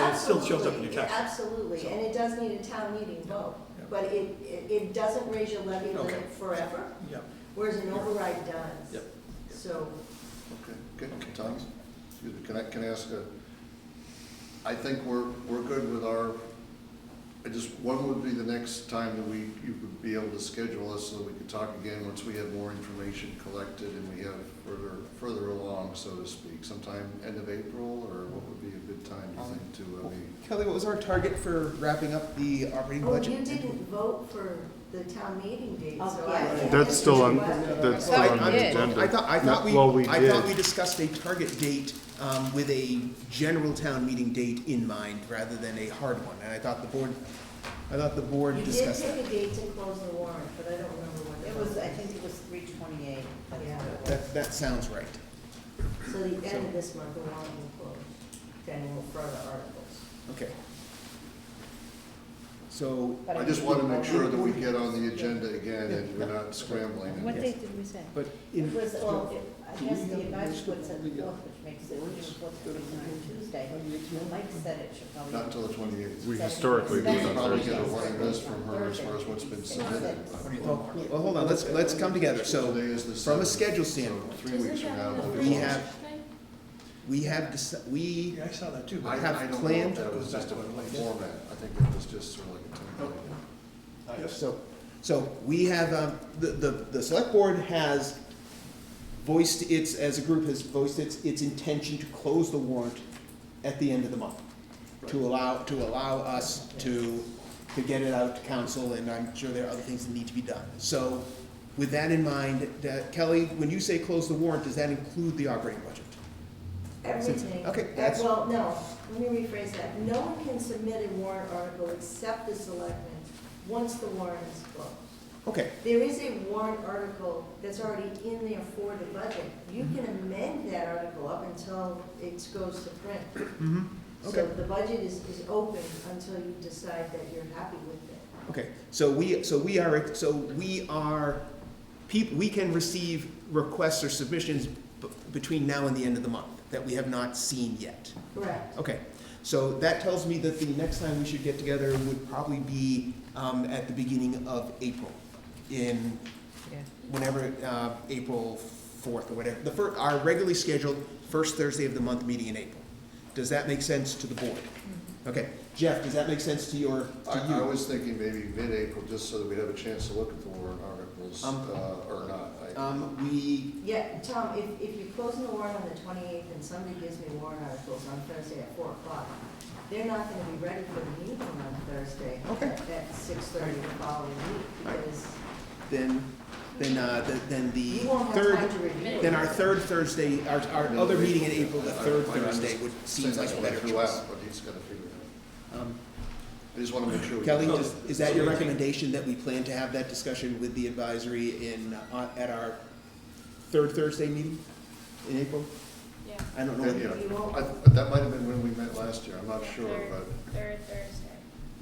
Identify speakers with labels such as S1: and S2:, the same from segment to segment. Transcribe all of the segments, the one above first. S1: it still shows up in your
S2: Absolutely,
S1: tax.
S2: Absolutely,
S1: So-
S2: and it does need a town meeting vote,
S1: Yeah.
S2: but it, it it doesn't raise your levy
S1: Okay.
S2: limit forever,
S1: Yeah,
S2: whereas an override does.
S1: Yep.
S2: So,
S3: Okay, good, Tom, excuse me, can I, can I ask a, I think we're, we're good with our, I just, when would be the next time that we, you would be able to schedule us so that we could talk again once we have more information collected and we have further, further along, so to speak, sometime end of April, or what would be a good time, you think, to, uh, I mean,
S4: Kelly, what was our target for wrapping up the operating
S2: oh,
S4: budget?
S2: you didn't vote for the town meeting date,
S5: Oh,
S2: so
S5: yeah.
S2: I can't.
S6: That's
S2: answer
S6: still
S2: your
S6: on-
S2: question.
S6: that's
S4: Well,
S6: still
S4: I-
S6: on
S4: I-
S6: the agenda.
S4: I thought, I thought
S6: No, well,
S4: we,
S6: we
S4: I thought
S6: did.
S4: we discussed a target date, um, with a general town meeting date in mind rather than a hard one, and I thought the board, I thought the board
S2: You did
S4: discussed that.
S2: pick a date to close the warrant, but I don't remember what
S5: It
S2: it
S5: was,
S2: was.
S5: I think it was three twenty-eight.
S2: Yeah.
S4: That, that sounds right.
S2: So the end of this month, the warrant will close, then we'll further articles.
S4: Okay. So,
S3: I just want to make sure that we get on the agenda again and we're not scrambling. and-
S5: What date did we say?
S4: but in,
S5: It was, well, it- I guess the advice puts it fourth, which makes it, which is what's going Tuesday. Mike said it should probably.
S3: Not till the twenty-eighth.
S6: We historically
S3: We
S6: do it
S3: could
S6: on
S3: probably get a
S6: Thursdays.
S3: running list from her as far as what's been submitted.
S4: well, well, hold on, let's, let's come together, so
S3: Today is the
S4: from a
S3: seventh,
S4: schedule
S3: so
S4: standpoint,
S3: Three weeks from now. we'll be
S4: we
S3: closed.
S4: have, we have, deci- we,
S1: yeah, I saw that too.
S3: I,
S1: but-
S3: I
S4: have
S3: don't know
S4: planned-
S3: if that was just a format, I think it was just sort of like a template.
S1: Yes.
S4: So, so we have, um, the, the, the select board has voiced its, as a group has voiced its, its intention to close the warrant at the end of the month. To allow, to allow us to, to get it out to council, and I'm sure there are other things that need to be done. So, with that in mind, that- Kelly, when you say close the warrant, does that include the operating budget?
S2: Everything.
S4: Okay,
S2: Uh,
S4: that's-
S2: Well, no, let me rephrase that. No one can submit a warrant article except the selectmen, once the warrant is closed.
S4: Okay,
S2: There is a warrant article that's already in there for the budget. You
S4: Mm-hmm.
S2: can amend that article up until it goes to print.
S4: mhm,
S2: So
S4: Okay.
S2: the budget is, is open until you decide that you're happy with it.
S4: okay, so we, so we are, so we are, peop, we can receive requests or submissions b- between now and the end of the month that we have not seen yet.
S2: Correct.
S4: Okay, so that tells me that the next time we should get together would probably be um, at the beginning of April, in whenever, uh, April 4th or whatever, the first, our regularly scheduled first Thursday of the month meeting in April. Does that make sense to the board? Okay, Jeff, does that make sense to your, Oh, to
S3: I, I
S4: you?
S3: was thinking maybe mid-April, just so that we'd have a chance to look at the warrant articles,
S4: Um,
S3: uh, or not. I-
S4: Um, We,
S2: Yeah, Tom, if, if you're closing the warrant on the twenty-eighth and somebody gives me warrant articles on Thursday at four o'clock, they're not gonna be ready for the meeting on Thursday.
S4: Okay.
S2: at- At six thirty the following week, because
S4: then, then, uh, the- then the
S2: you won't have time
S4: third,
S2: to review it.
S4: then our third Thursday, our, our
S3: Middle
S4: other
S3: of
S4: meeting in
S3: April.
S4: April, the
S3: I- I-
S4: third
S3: I'm just
S4: Thursday would, seems
S3: saying
S4: like
S3: that's
S4: a
S3: what I
S4: better
S3: threw
S4: choice.
S3: out, But he's gotta figure it
S4: Um,
S3: out. I just wanna make sure. we-
S4: Kelly,
S1: Oh.
S4: does- is that your recommendation that we plan to have that discussion with the advisory in, uh, at our third Thursday meeting in April?
S7: Yeah,
S4: I don't know.
S3: That,
S4: when-
S3: yeah,
S2: You won't-
S3: I, that might have been when we met last year, I'm not sure,
S7: third,
S3: but.
S7: third Thursday.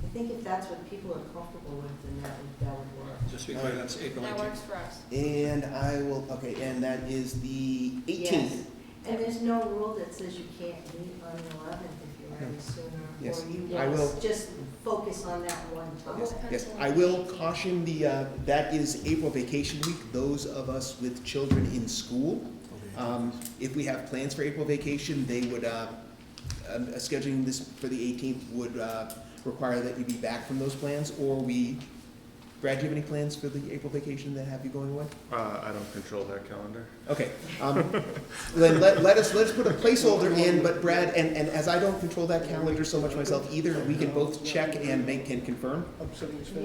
S2: I think if that's what people are comfortable with, then that would, that would work.
S1: Just to be clear, that's April
S7: That
S1: eighteenth.
S7: works for us.
S4: And I will, okay, and that is the eighteenth.
S2: Yes. And there's no rule that says you can't meet on the eleventh if you're ready sooner,
S4: Hmm. Yes,
S2: or you
S4: I will-
S2: want to just focus on that one topic.
S7: Yes.
S4: Yes, I will caution the, uh, that is April vacation week, those of us with children in school. Um, if we have plans for April vacation, they would, uh, um, uh, scheduling this for the eighteenth would, uh, require that you be back from those plans, or we, Brad, do you have any plans for the April vacation that have you going away?
S6: Uh, I don't control that calendar.
S4: Okay, um, then let, let us, let's put a placeholder in, but Brad, and, and as I don't control that calendar so much myself either, we can both check and make, can confirm.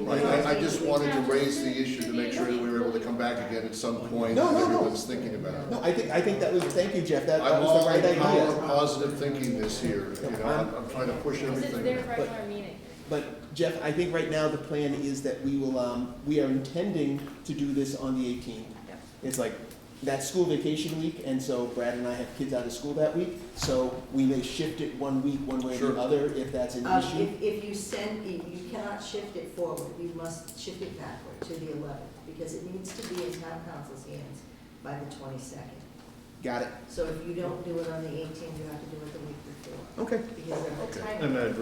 S3: I, I- I just wanted to raise the issue to make sure that we were able to come back again at some point.
S4: No, no,
S3: that
S4: no.
S3: Everyone's thinking about
S4: No,
S3: it.
S4: I think, I think that was, thank you, Jeff, that, that
S3: I'm
S4: was
S3: all
S4: the right
S3: in power
S4: idea.
S3: of positive thinking this year, you know, I'm, I'm trying to push
S7: This is their
S3: everything.
S7: regular meeting.
S4: But Jeff, I think right now the plan is that we will, um, we are intending to do this on the eighteenth.
S7: Yep.
S4: It's like, that's school vacation week, and so Brad and I have kids out of school that week, so we may shift it one week, one way or
S3: Sure.
S4: the other, if that's an
S2: Um,
S4: issue.
S2: If, if you send, you you cannot shift it forward, you must shift it backward to the eleventh, because it needs to be in town council's hands by the twenty-second.
S4: Got it,
S2: So if you don't do it on the eighteenth, you have to do it the week before,
S4: okay.
S2: because of the
S3: Okay.
S2: timing.
S6: And then